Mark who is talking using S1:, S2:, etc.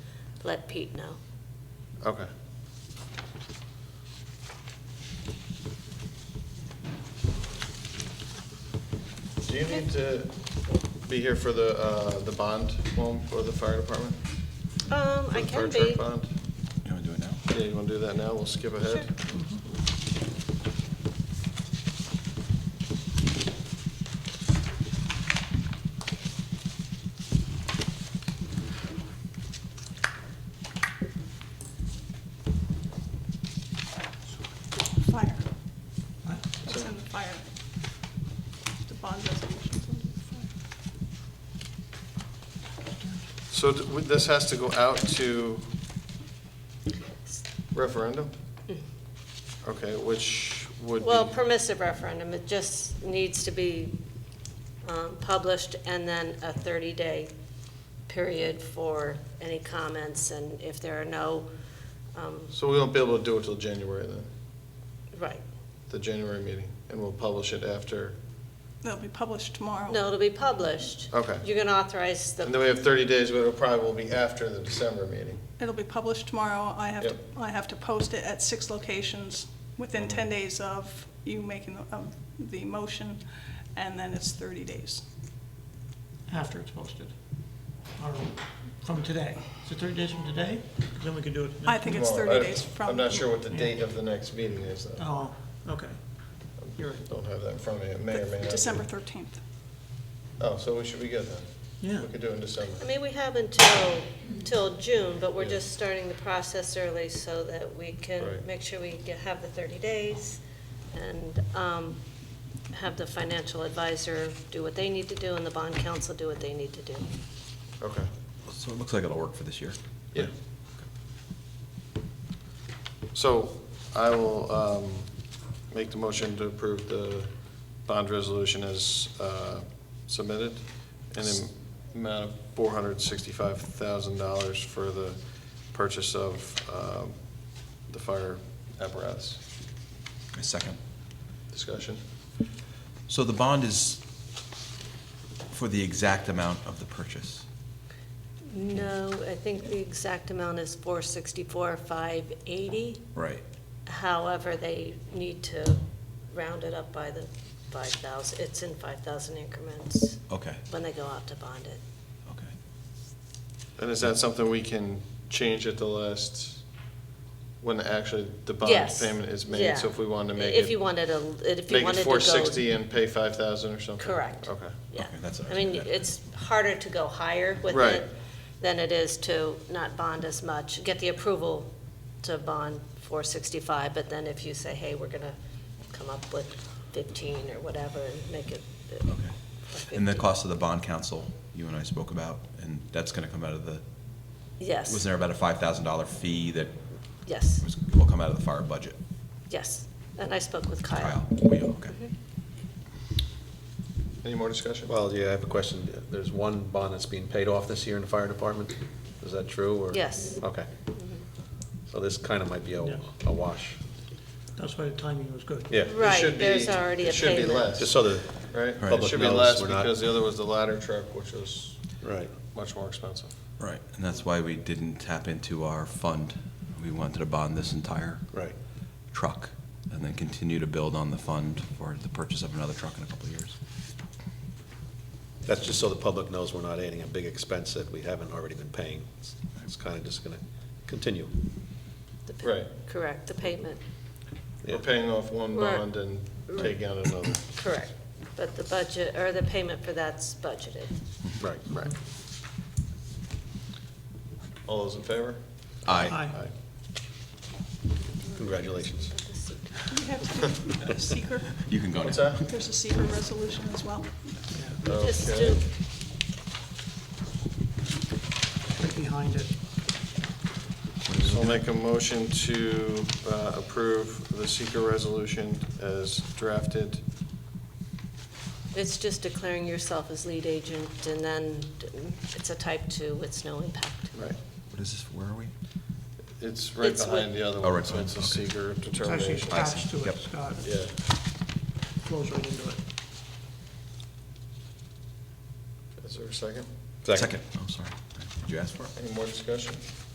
S1: let Pete know.
S2: Okay. Do you need to be here for the, uh, the bond loan for the fire department?
S1: Um, I can
S2: For the fire
S1: be.
S2: truck bond?
S3: You want to do it now?
S2: Yeah, you wanna do that now? We'll skip ahead.
S4: Fire. It's in the fire. The bond resolution's under the
S2: So d- would- this has to go out to referendum? Okay, which would be?
S1: Mm-hmm. Well, permissive referendum, it just needs to be um, published, and then a 30-day period for any comments, and if there are no, um,
S2: So we won't be able to do it till January then,
S1: right.
S2: the January meeting, and we'll publish it after,
S4: fire. They'll be published tomorrow.
S1: No, it'll be published.
S2: Okay.
S1: You're going to authorize
S2: and then
S1: the,
S2: we have thirty days, but it'll probably will be after the December meeting.
S4: It'll be published tomorrow. I have to,
S2: Yep. Mm-hmm.
S4: I have to post it at six locations within ten days of you making, the- of the motion, and then it's thirty days.
S5: after it's posted, or from today. So thirty days from today, then we can do it.
S4: I think it's
S2: Well,
S4: thirty
S2: I-
S4: days from.
S2: I'm not sure what the date of the next meeting is, though.
S5: Oh, okay. You're right.
S2: Don't have that in front of me, it may or may not. be.
S4: December thirteenth.
S2: Oh, so we should be good then?
S5: Yeah.
S2: We could do it in December.
S1: I mean, we have until, till June, but we're
S2: Yeah.
S1: just starting the process early so that we can
S2: Right.
S1: make sure we get- have the 30 days and um, have the financial advisor do what they need to do and the bond council do what they need to do.
S2: Okay.
S3: So it looks like it'll work for this year.
S2: Yeah. So I will um, make the motion to approve the bond resolution as uh, submitted in the amount of $465,000 for the purchase of um, the fire apparatus.
S3: A second.
S2: Discussion?
S3: So the bond is for the exact amount of the purchase.
S1: No, I think the exact amount is 464, 580.
S3: Right.
S1: However, they need to round it up by the 5,000, it's in 5,000 increments
S3: Okay,
S1: when they go out to bond it.
S3: okay.
S2: And is that something we can change at the last, when actually the bond
S1: Yes.
S2: payment is
S1: Yeah.
S2: made? So if we wanted to make it.
S1: If you wanted to, if you
S2: Make
S1: wanted
S2: it
S1: to go.
S2: four sixty and pay five thousand or something?
S1: Correct.
S2: Okay.
S1: Yeah.
S3: Okay, that's
S1: I mean,
S3: okay.
S1: it's harder to go higher with
S2: Right.
S1: it than it is to not bond as much, get the approval to bond four sixty-five, but then if you say, hey, we're gonna come up with fifteen or whatever and make it. uh,
S3: Okay. And the
S1: 50.
S3: cost of the bond council, you and I spoke about, and that's going to come out of the, was
S1: Yes,
S3: there about a $5,000 fee that
S1: yes,
S3: was, will come out of the fire budget?
S1: yes. And I spoke with
S3: Kyle,
S1: Kyle.
S3: we, Oh, okay.
S2: Any more discussion?
S6: Well, yeah, I have a question. There's one bond that's being paid off this year in the fire department. Is that true, or?
S1: Yes.
S6: Okay. So this kind of might be
S5: Yeah.
S6: a a wash.
S5: That's why the timing was good.
S6: Yeah.
S2: It should
S1: Right,
S2: be-
S1: there's already a
S2: It should be
S1: payment.
S6: Just
S2: less,
S6: so the
S2: right? It
S6: public
S2: should be
S6: knows
S2: less
S6: we're not-
S2: because the other was the ladder truck, which was
S6: Right.
S2: much more expensive.
S3: Right, and that's why we didn't tap into our fund. We wanted to bond this entire
S6: Right.
S3: truck and then continue to build on the fund for the purchase of another truck in a couple of years.
S6: That's just so the public knows we're not adding a big expense that we haven't already been paying. It's- It's kind of just going to continue.
S1: The pa-
S2: Right.
S1: Correct, the payment,
S2: We're
S6: Yeah.
S2: paying off one
S1: Right.
S2: bond and taking out another.
S1: correct. But the budget, or the payment for that's budgeted.
S6: Right, right.
S2: All those in favor?
S5: Aye.
S6: Congratulations.
S4: We have to do a seeker,
S3: You can go now.
S2: What's that?
S4: there's a seeker resolution as well.
S1: Just
S2: Okay.
S1: do-
S5: Right behind it.
S2: So I'll make a motion to uh, approve the seeker resolution as drafted.
S1: It's just declaring yourself as lead agent, and then it's a type two, it's no impact.
S2: Right.
S3: What is this, where are we?
S2: It's right
S1: It's
S2: behind
S1: with-
S2: the other
S3: Oh,
S2: one.
S3: right
S2: so
S3: behind,
S2: It's a
S3: okay.
S2: seeker
S5: It's actually
S2: determination.
S5: attached to
S3: Yep.
S5: it, Scott.
S2: Yeah.
S5: Flows right into it.
S2: Is there a second?
S3: Oh, I'm sorry. Did you ask for it?
S2: Any more discussion?